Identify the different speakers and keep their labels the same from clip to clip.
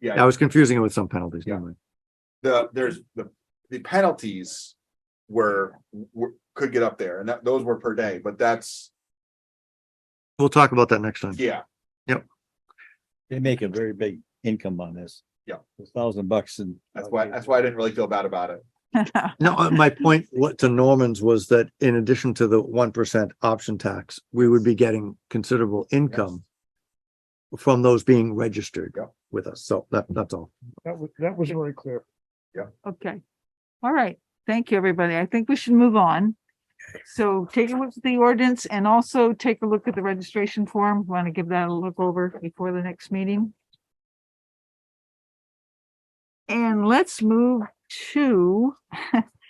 Speaker 1: Yeah.
Speaker 2: I was confusing it with some penalties.
Speaker 1: Yeah.
Speaker 2: never mind.
Speaker 1: the, there's the, the penalties were, were, could get up there and that, those were per day, but that's,
Speaker 2: We'll talk about that next time.
Speaker 1: yeah,
Speaker 3: They make a very big income on this.
Speaker 1: Yeah.
Speaker 3: A thousand bucks and.
Speaker 1: that's why, that's why I didn't really feel bad about it.
Speaker 2: No, uh, my point what to Norman's was that in addition to the one percent option tax, we would be getting considerable income from those being registered
Speaker 1: Yeah.
Speaker 2: with us. So that, that's all.
Speaker 4: That was, that was very clear.
Speaker 5: Okay. All right. Thank you, everybody. I think we should move on. So take a look at the ordinance and also take a look at the registration form. Want to give that a look over before the next meeting? And let's move to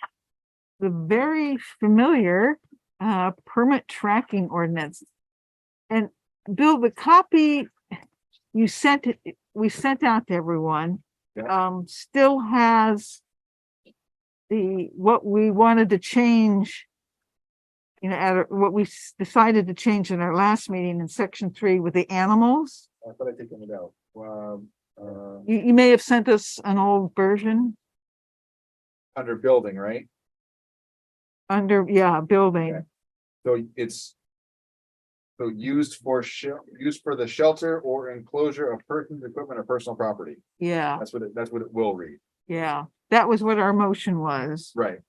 Speaker 5: the very familiar uh permit tracking ordinance. And Bill, the copy you sent, it- we sent out to everyone um, still has the, what we wanted to change, you know, at, our- what we s- decided to change in our last meeting in section three with the animals.
Speaker 1: I thought I'd taken it out. Um, uh,
Speaker 5: You, you may have sent us an old version
Speaker 1: under building, right?
Speaker 5: under, yeah, building.
Speaker 1: So it's. So used for shel- used for the shelter or enclosure of persons, equipment or personal property.
Speaker 5: Yeah,
Speaker 1: That's what it, that's what it will read,
Speaker 5: yeah. That was what our motion was.
Speaker 1: right?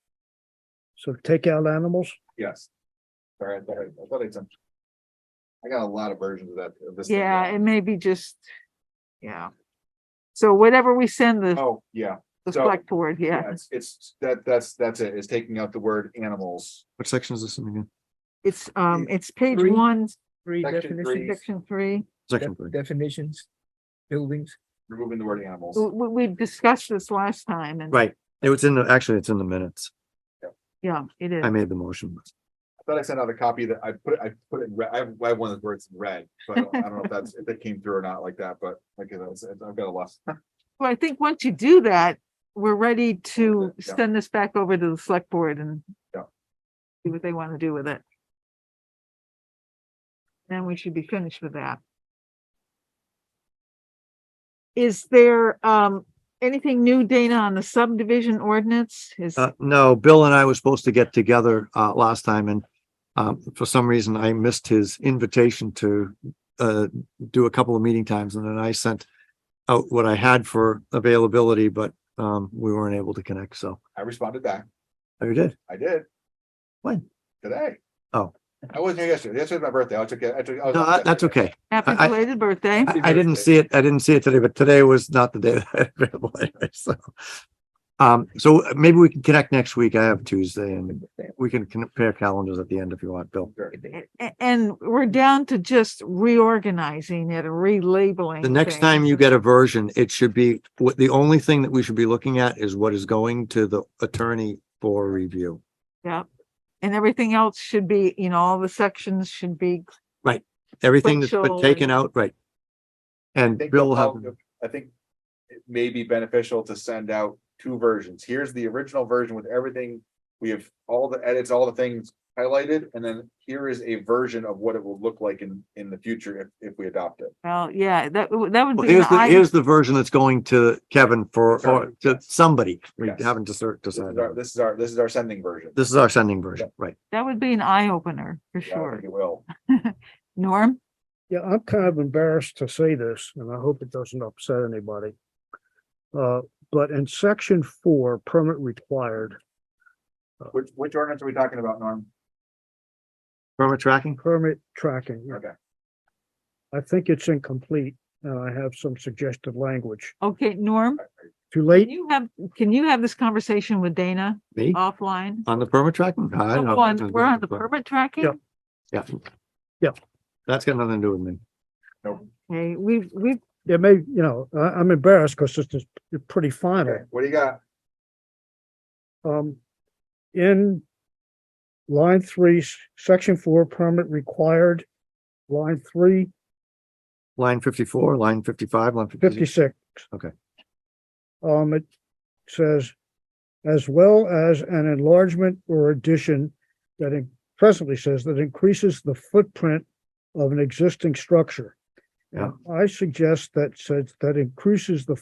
Speaker 4: So take out animals.
Speaker 1: Yes. All right, all right, I thought it's. I got a lot of versions of that. of this thing.
Speaker 5: Yeah, it may be just, yeah. So whatever we send the,
Speaker 1: Oh, yeah,
Speaker 5: the
Speaker 1: so-
Speaker 5: select board,
Speaker 1: yeah,
Speaker 5: yeah,
Speaker 1: it's, it's, that, that's, that's it, is taking out the word animals.
Speaker 2: What section is this in again?
Speaker 5: it's, um, it's page
Speaker 6: Three.
Speaker 5: one,
Speaker 6: Three
Speaker 1: Section three.
Speaker 6: definitions,
Speaker 5: section three.
Speaker 2: Section
Speaker 6: def-
Speaker 2: three.
Speaker 6: definitions, buildings.
Speaker 1: Removing the word animals.
Speaker 5: W- w- We, discussed this last time and.
Speaker 2: Right. It was in the, actually, it's in the minutes.
Speaker 5: Yeah, it is.
Speaker 2: I made the motion.
Speaker 1: I thought I sent out a copy that I put, it- I put it in red, I have, I have one of the words in red, so I don't, I don't know if that's, if that came through or not like that, but like, you know, it's- it's- I've got a lot.
Speaker 5: Well, I think once you do that, we're ready to
Speaker 1: Yeah.
Speaker 5: send this back over to the select board and.
Speaker 1: Yeah.
Speaker 5: See what they want to do with it. Then we should be finished with that. Is there, um, anything new, Dana, on the subdivision ordinance? Is,
Speaker 2: Uh, no, Bill and I were supposed to get together, uh, last time and, um, for some reason I missed his invitation to, uh, do a couple of meeting times and then I sent out what I had for availability, but, um, we weren't able to connect. So
Speaker 1: I responded back,
Speaker 2: Oh, you did.
Speaker 1: I did.
Speaker 2: When?
Speaker 1: Today.
Speaker 2: Oh.
Speaker 1: I wasn't here yesterday, yesterday was my birthday, I took, it- I took. I was
Speaker 2: No,
Speaker 1: off
Speaker 2: that- that's
Speaker 1: yesterday.
Speaker 2: okay.
Speaker 5: happy
Speaker 2: I- I-
Speaker 5: belated birthday.
Speaker 2: I, I didn't see it. I didn't see it today, but today was not the day that I had available. anyway, So, um, so maybe we can connect next week. I have Tuesday and we can compare calendars at the end if you want, Bill.
Speaker 1: Sure.
Speaker 5: A- a- And we're down to just reorganizing it and relabeling.
Speaker 2: The next time
Speaker 5: things.
Speaker 2: you get a version, it should be, what, the only thing that we should be looking at is what is going to the attorney for review.
Speaker 5: Yep. And everything else should be, you know, all the sections should be,
Speaker 2: Everything that's been
Speaker 5: Sequential
Speaker 2: taken
Speaker 5: and-
Speaker 2: out, right?
Speaker 1: I
Speaker 2: And
Speaker 1: think
Speaker 2: Bill will have,
Speaker 1: I'll- I think it may be beneficial to send out two versions. Here's the original version with everything. We have all the edits, all the things highlighted, and then here is a version of what it will look like in, in the future if, if we adopt it.
Speaker 5: well, yeah, that, w- that would
Speaker 2: Well,
Speaker 5: be. an
Speaker 2: here's the,
Speaker 5: eye-
Speaker 2: here's the version that's going to Kevin for, or
Speaker 1: Sorry,
Speaker 2: to
Speaker 1: yes.
Speaker 2: somebody. We
Speaker 1: Yes.
Speaker 2: haven't decir-
Speaker 1: This is
Speaker 2: decided.
Speaker 1: our,
Speaker 2: on.
Speaker 1: this is our, this is our sending version.
Speaker 2: This is our sending version, right?
Speaker 5: That would be an eye opener for
Speaker 1: Yeah, I
Speaker 5: sure.
Speaker 1: think It will.
Speaker 5: Norm?
Speaker 4: Yeah, I'm kind of embarrassed to say this, and I hope it doesn't upset anybody. Uh, but in section four, permit required,
Speaker 1: Which, which ordinance are we talking about, Norm?
Speaker 2: Permit tracking?
Speaker 4: permit tracking.
Speaker 1: Okay.
Speaker 4: I think it's incomplete, and I have some suggested language.
Speaker 5: Okay, Norm,
Speaker 4: Too
Speaker 5: can
Speaker 4: late?
Speaker 5: you have, can you have this conversation with Dana
Speaker 2: Me?
Speaker 5: offline?
Speaker 2: On the permit tracking? Mm-hmm. I don't
Speaker 5: Oh,
Speaker 2: know.
Speaker 5: on- We're on the permit tracking?
Speaker 2: Yeah.
Speaker 4: Yeah.
Speaker 2: That's got nothing to do with me.
Speaker 5: Okay, we've, we've,
Speaker 4: It may, you know, I, I'm embarrassed because it's, just- it's pretty final.
Speaker 1: Okay, what do you got?
Speaker 4: Um, in line three, s- section four, permit required, line three,
Speaker 2: Line fifty-four, line fifty-five, line fifty-six.
Speaker 4: fifty-six.
Speaker 2: Okay.
Speaker 4: Um, it says, as well as an enlargement or addition that it presently says that increases the footprint of an existing structure.
Speaker 2: Yeah.
Speaker 4: And I suggest that says that increases the